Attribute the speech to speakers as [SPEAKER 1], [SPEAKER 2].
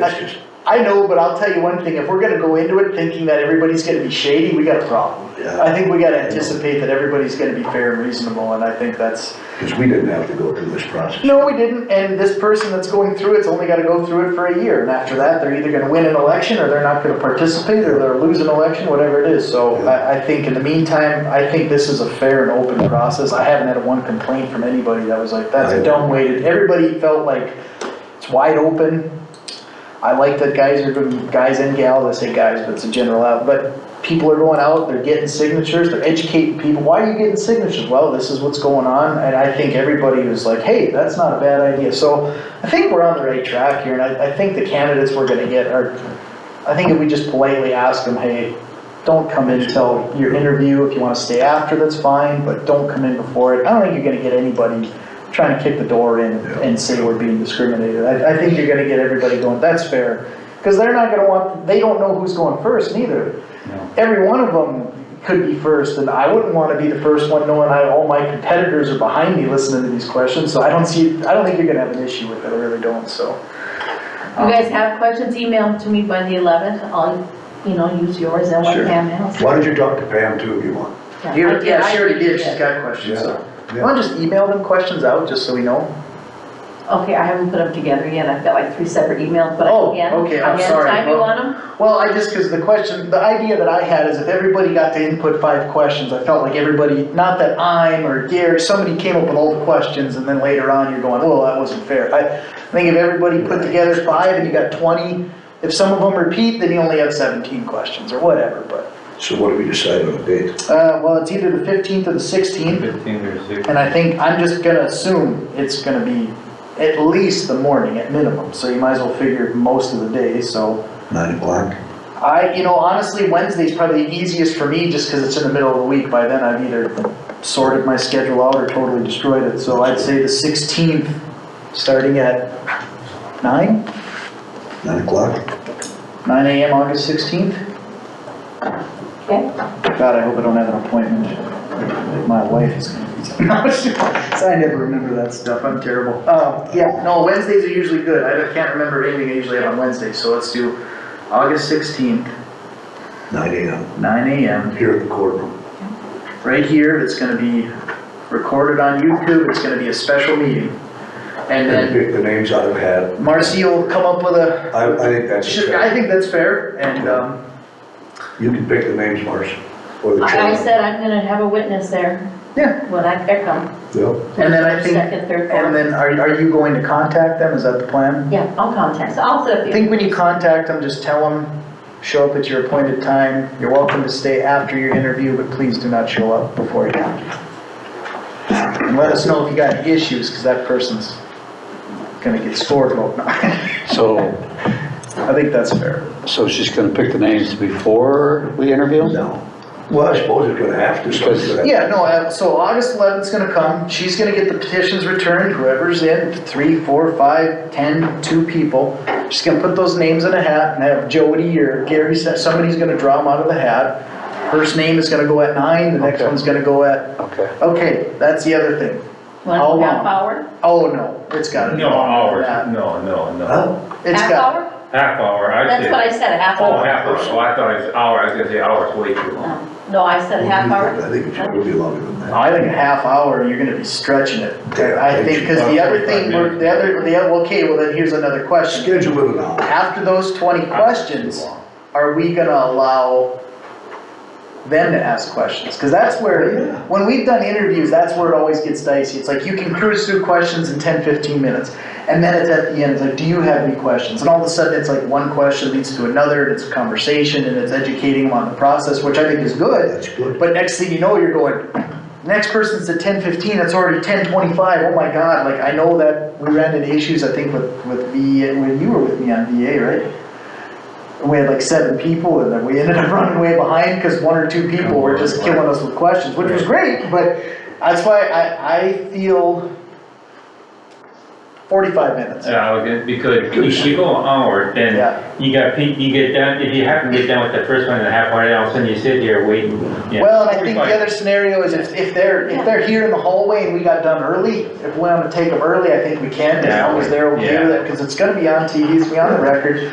[SPEAKER 1] I I know, but I'll tell you one thing, if we're gonna go into it thinking that everybody's gonna be shady, we got a problem.
[SPEAKER 2] Yeah,
[SPEAKER 1] I think we gotta anticipate that everybody's gonna be fair and reasonable, and I think that's,
[SPEAKER 2] because we didn't have to go through this process.
[SPEAKER 1] no, we didn't, and this person that's going through it's only gotta go through it for a year, and after that, they're either gonna win an election, or they're not gonna participate, or they're lose an election, whatever it is, so I, I think in the meantime, I think this is a fair and open process, I haven't had one complaint from anybody that was like, that's a dumb way, to everybody felt like it's wide open, I like that guys are doing, guys and gals, I say guys, but it's a general out, but people are going out, they're getting signatures, they're educating people, why are you getting signatures? Well, this is what's going on, and I think everybody was like, hey, that's not a bad idea, so I think we're on the right track here, and I, I think the candidates we're gonna get are, I think if we just politely ask them, hey, don't come in till your interview, if you wanna stay after, that's fine, but don't come in before it, I don't think you're gonna get anybody trying to kick the door in and say we're being discriminated, I, I think you're gonna get everybody going, that's fair, cause they're not gonna want, they don't know who's going first neither. Every one of them could be first, and I wouldn't wanna be the first one knowing I, all my competitors are behind me listening to these questions, so I don't see, I don't think you're gonna have an issue with it, I really don't, so.
[SPEAKER 3] You guys have questions, email them to me by the eleventh, I'll, you know, use yours and what
[SPEAKER 2] Sure.
[SPEAKER 3] Pam has.
[SPEAKER 2] Why don't you talk to Pam too if you want?
[SPEAKER 3] I
[SPEAKER 1] You-
[SPEAKER 3] did-
[SPEAKER 1] Yeah,
[SPEAKER 3] I
[SPEAKER 1] she already did, she's
[SPEAKER 3] it.
[SPEAKER 1] got questions, so.
[SPEAKER 2] Yeah.
[SPEAKER 1] Why don't you just email them questions out, just so we know?
[SPEAKER 3] Okay, I haven't put them together yet, I've got like three separate emails, but
[SPEAKER 1] Oh,
[SPEAKER 3] I can.
[SPEAKER 1] okay, I'm
[SPEAKER 3] Again,
[SPEAKER 1] sorry.
[SPEAKER 3] Time you want them?
[SPEAKER 1] Well, I just, because the question, the idea that I had is if everybody got to input five questions, I felt like everybody, not that I'm or Gary, somebody came up with all the questions and then later on you're going, well, that wasn't fair. I I think if everybody put together five and you got twenty, if some of them repeat, then you only have seventeen questions or whatever, but,
[SPEAKER 2] So what do we decide on the date?
[SPEAKER 1] uh, well, it's either the fifteenth or the sixteenth.
[SPEAKER 4] Fifteen or six.
[SPEAKER 1] And I think, I'm just gonna assume it's gonna be at least the morning at minimum, so you might as well figure most of the day, so.
[SPEAKER 2] Nine o'clock?
[SPEAKER 1] I, you know, honestly, Wednesday's probably the easiest for me just because it's in the middle of the week. By then, I've either sorted my schedule out or totally destroyed it. So I'd say the 16th, starting at 9,
[SPEAKER 2] Nine o'clock?
[SPEAKER 1] 9 a.m. August 16th.
[SPEAKER 3] Okay.
[SPEAKER 1] God, I hope I don't have an appointment. My wife is gonna be. So I never remember that stuff. I'm terrible. Um, yeah, no, Wednesdays are usually good. I can't remember anything I usually have on Wednesday, so let's do August 16th,
[SPEAKER 2] Nine AM,
[SPEAKER 1] 9 a.m.
[SPEAKER 2] here in the courtroom.
[SPEAKER 1] right here, it's gonna be recorded on YouTube, it's gonna be a special meeting. And
[SPEAKER 2] And
[SPEAKER 1] then
[SPEAKER 2] pick the names out of a hat.
[SPEAKER 1] Marcy will come up with a,
[SPEAKER 2] I, I think that's
[SPEAKER 1] should- I
[SPEAKER 2] fair.
[SPEAKER 1] think that's fair, and, um,
[SPEAKER 2] You can pick the names, Marcy, or the
[SPEAKER 3] I I
[SPEAKER 2] chairman.
[SPEAKER 3] said I'm gonna have a witness there.
[SPEAKER 1] Yeah.
[SPEAKER 3] When I pick them.
[SPEAKER 2] Yep.
[SPEAKER 1] and then I think,
[SPEAKER 3] Second, third,
[SPEAKER 1] and
[SPEAKER 3] fourth.
[SPEAKER 1] then are, are you going to contact them, is that the plan?
[SPEAKER 3] Yeah, I'll contact, so I'll set up
[SPEAKER 1] I
[SPEAKER 3] the.
[SPEAKER 1] think when you contact them, just tell them, show up at your appointed time, you're welcome to stay after your interview, but please do not show up before you. And let us know if you got any issues, cause that person's gonna get scored, well, I
[SPEAKER 5] So,
[SPEAKER 1] think that's fair.
[SPEAKER 5] so she's gonna pick the names before we interview?
[SPEAKER 2] No. Well, I suppose it's gonna have to, so it's gonna-
[SPEAKER 1] Yeah, no, uh, so August eleventh's gonna come, she's gonna get the petitions returned, whoever's in, three, four, five, ten, two people. She's gonna put those names in a hat and have Jody or Gary, sa- somebody's gonna draw them out of the hat. First name is gonna go at nine, the next
[SPEAKER 5] Okay.
[SPEAKER 1] one's gonna go at,
[SPEAKER 5] Okay.
[SPEAKER 1] okay, that's the other thing.
[SPEAKER 3] One
[SPEAKER 1] how
[SPEAKER 3] half
[SPEAKER 1] long?
[SPEAKER 3] hour?
[SPEAKER 1] Oh, no, it's gotta be.
[SPEAKER 4] No,
[SPEAKER 1] longer
[SPEAKER 4] hour,
[SPEAKER 1] than that.
[SPEAKER 4] no, no, no.
[SPEAKER 2] Huh?
[SPEAKER 1] It's
[SPEAKER 3] Half
[SPEAKER 1] got,
[SPEAKER 3] hour?
[SPEAKER 4] Half hour, I
[SPEAKER 3] That's
[SPEAKER 4] did.
[SPEAKER 3] what I said, a half
[SPEAKER 4] Oh,
[SPEAKER 3] hour.
[SPEAKER 4] half hour, so I thought it was hour, I was gonna say hour is way too long.
[SPEAKER 3] No, No, I said half hour.
[SPEAKER 2] I think it should be longer than that.
[SPEAKER 1] I think a half hour, you're gonna be stretching it.
[SPEAKER 2] Yeah,
[SPEAKER 1] I think, cause the other thing, we're- the other, the, other- okay, well then here's another question.
[SPEAKER 2] Schedule it an hour.
[SPEAKER 1] After those twenty
[SPEAKER 4] Ah,
[SPEAKER 1] questions, are we gonna allow them to ask questions? Cause that's
[SPEAKER 2] Yeah.
[SPEAKER 1] where, when we've done interviews, that's where it always gets dicey. It's like you can cruise through questions in 10, 15 minutes. And then it's at the end, it's like, do you have any questions? And all of a sudden, it's like one question leads to another, and it's a conversation, and it's educating them on the process, which I think is good.
[SPEAKER 2] That's good.
[SPEAKER 1] But next thing you know, you're going, next person's at ten fifteen, it's already ten twenty-five, oh my god, like, I know that we ran into issues, I think, with, with VA, when you were with me on VA, right? And We had like seven people, and then we ended up running way behind, cause one or two people were just killing us with questions, which was great, but that's why I, I feel forty-five minutes.
[SPEAKER 4] Yeah, I was gonna- because if you go an hour,
[SPEAKER 1] Yeah.
[SPEAKER 4] then you got, pe- you get done, if you happen to get done with the first one in a half hour, then all of a sudden you sit here waiting. you know,
[SPEAKER 1] Well, and I think the
[SPEAKER 4] 45.
[SPEAKER 1] other scenario is if, if they're,
[SPEAKER 3] Yeah.
[SPEAKER 1] if they're here in the hallway and we got done early, if we wanna take them early, I think we can, as
[SPEAKER 4] Yeah,
[SPEAKER 1] long as they're okay
[SPEAKER 4] yeah.
[SPEAKER 1] with it, cause it's gonna be on TV, it's gonna be on the record.